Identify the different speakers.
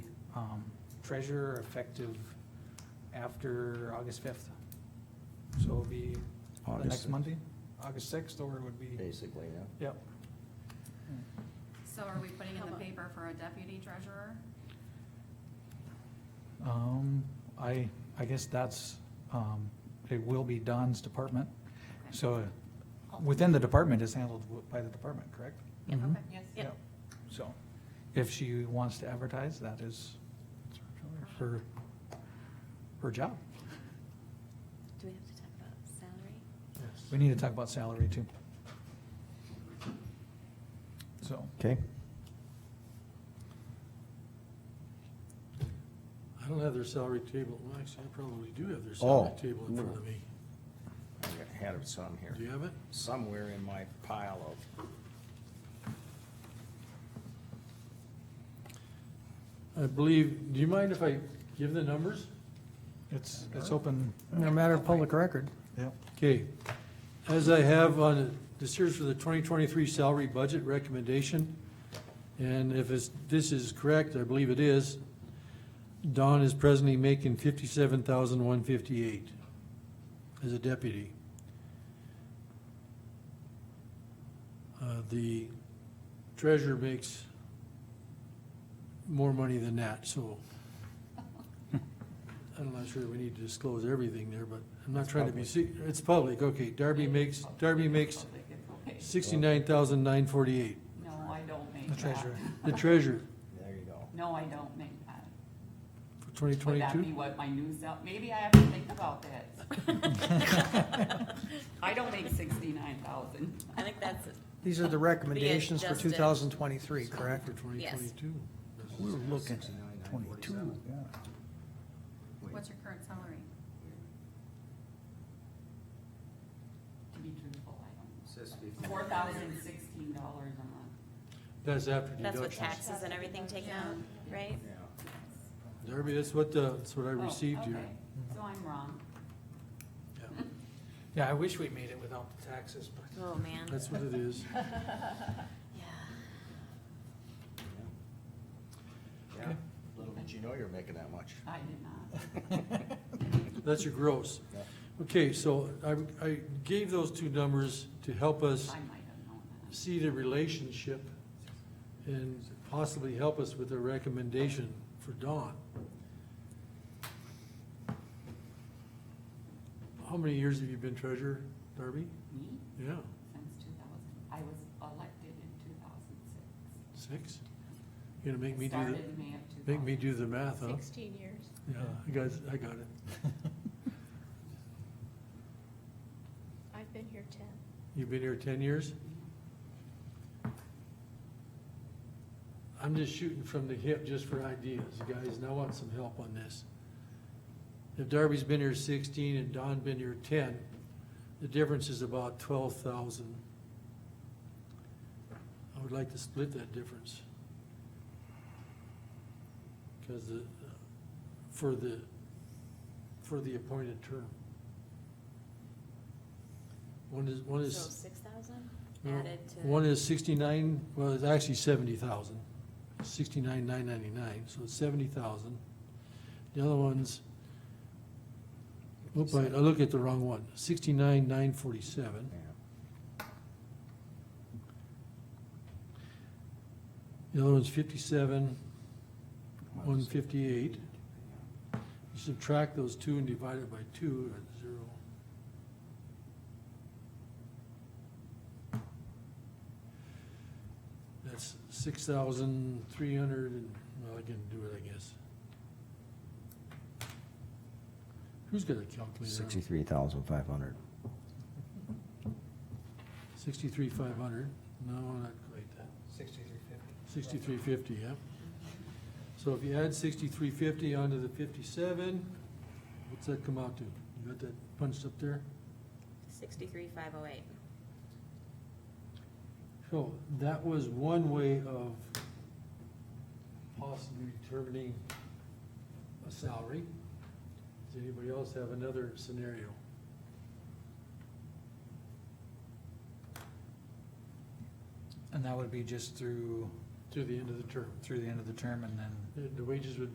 Speaker 1: um, treasurer effective after August fifth. So it'll be the
Speaker 2: August
Speaker 1: next
Speaker 2: 6th.
Speaker 1: Monday, August sixth, or it would be,
Speaker 2: basically, yeah.
Speaker 1: yep.
Speaker 3: So are we putting in
Speaker 4: How
Speaker 3: the
Speaker 4: about-
Speaker 3: paper for a deputy treasurer?
Speaker 1: Um, I, I guess that's, um, it will be Don's department.
Speaker 3: Okay.
Speaker 1: So within the department is handled w- by the department, correct?
Speaker 3: Yeah,
Speaker 1: Mhm.
Speaker 3: okay.
Speaker 4: Yes.
Speaker 1: Yep. So if she wants to advertise, that is her, her job.
Speaker 5: Do we have to talk about salary?
Speaker 1: We need to talk about salary too. So,
Speaker 2: Okay,
Speaker 6: I don't have their salary table, well, actually, I probably do have their salary
Speaker 2: Oh.
Speaker 6: table in front of me.
Speaker 2: I had it some here,
Speaker 6: Do you have it?
Speaker 2: somewhere in my pile of,
Speaker 6: I believe, do you mind if I give the numbers?
Speaker 1: it's, it's open,
Speaker 7: No matter of public record.
Speaker 1: yep.
Speaker 6: Okay, as I have on, this here's for the twenty twenty-three salary budget recommendation. And if it's, this is correct, I believe it is, Don is presently making fifty-seven thousand one fifty-eight as a deputy. Uh, the treasurer makes more money than that, so. I'm not sure we need to disclose everything there, but I'm not trying to be, se- it's public, okay, Darby makes, Darby makes
Speaker 4: Public information.
Speaker 6: sixty-nine thousand nine forty-eight.
Speaker 4: No, I don't make
Speaker 1: The
Speaker 4: that.
Speaker 1: treasurer.
Speaker 6: The treasurer
Speaker 2: there you go.
Speaker 4: No, I don't make that.
Speaker 6: for twenty
Speaker 4: Would that be
Speaker 6: twenty-two?
Speaker 4: what my new sal, maybe I have to think about that. I don't make sixty-nine thousand.
Speaker 5: I think that's,
Speaker 7: These are the recommendations for
Speaker 5: adjusted.
Speaker 7: 2023, correct?
Speaker 6: For twenty twenty-two.
Speaker 2: We were
Speaker 7: looking at
Speaker 2: twenty-two.
Speaker 3: What's your current salary?
Speaker 4: To be truthful, I
Speaker 2: Says
Speaker 4: don't. Four thousand sixteen dollars a month.
Speaker 6: That's after
Speaker 5: that's what
Speaker 6: deductions.
Speaker 5: taxes and everything take out, right?
Speaker 2: Yeah.
Speaker 6: Darby, that's what, uh, that's what I
Speaker 4: Oh,
Speaker 6: received here.
Speaker 4: okay. So I'm wrong.
Speaker 6: Yeah,
Speaker 1: Yeah, I wish we made it without the taxes, but.
Speaker 5: Oh, man.
Speaker 6: That's what it is.
Speaker 5: Yeah.
Speaker 2: Yeah, little did you know you're making that much.
Speaker 4: I did not.
Speaker 6: That's your gross.
Speaker 2: Yeah.
Speaker 6: Okay, so I, I gave those two numbers to help us
Speaker 4: I might have known that.
Speaker 6: see the relationship and possibly help us with a recommendation for Dawn. How many years have you been treasurer, Darby?
Speaker 4: Me,
Speaker 6: Yeah,
Speaker 4: since two thousand, I was elected in two thousand six.
Speaker 6: six? You're gonna make me do
Speaker 4: Started in
Speaker 6: the,
Speaker 4: May of two thousand.
Speaker 6: make me do the math, huh?
Speaker 8: Sixteen years.
Speaker 6: Yeah, I got, I got it.
Speaker 8: I've been here ten.
Speaker 6: You've been here ten years? I'm just shooting from the hip just for ideas, guys, and I want some help on this. If Darby's been here sixteen and Don been here ten, the difference is about twelve thousand. I would like to split that difference. Cause the, for the, for the appointed term. One is, one is.
Speaker 5: So six thousand
Speaker 6: No,
Speaker 5: added to.
Speaker 6: One is sixty-nine, well, it's actually seventy thousand, sixty-nine, nine ninety-nine, so it's seventy thousand. The other one's, whoop, I I looked at the wrong one, sixty-nine, nine forty-seven.
Speaker 2: Yeah.
Speaker 6: The other one's fifty-seven,
Speaker 2: Well,
Speaker 6: one
Speaker 2: it's-
Speaker 6: fifty-eight. You subtract those two and divide it by two, that's zero. That's six thousand three hundred and, well, I can do it, I guess. Who's got a calculator?
Speaker 2: Sixty-three thousand five hundred.
Speaker 6: Sixty-three five hundred, no, not quite that.
Speaker 1: Sixty-three fifty.
Speaker 6: Sixty-three fifty, yeah. So if you add sixty-three fifty onto the fifty-seven, what's that come out to? You got that punched up there?
Speaker 5: Sixty-three, five oh eight.
Speaker 6: So that was one way of possibly determining a salary. Does anybody else have another scenario?
Speaker 1: And that would be just through,
Speaker 6: To the end of the term.
Speaker 1: through the end of the term and then
Speaker 6: The the wages would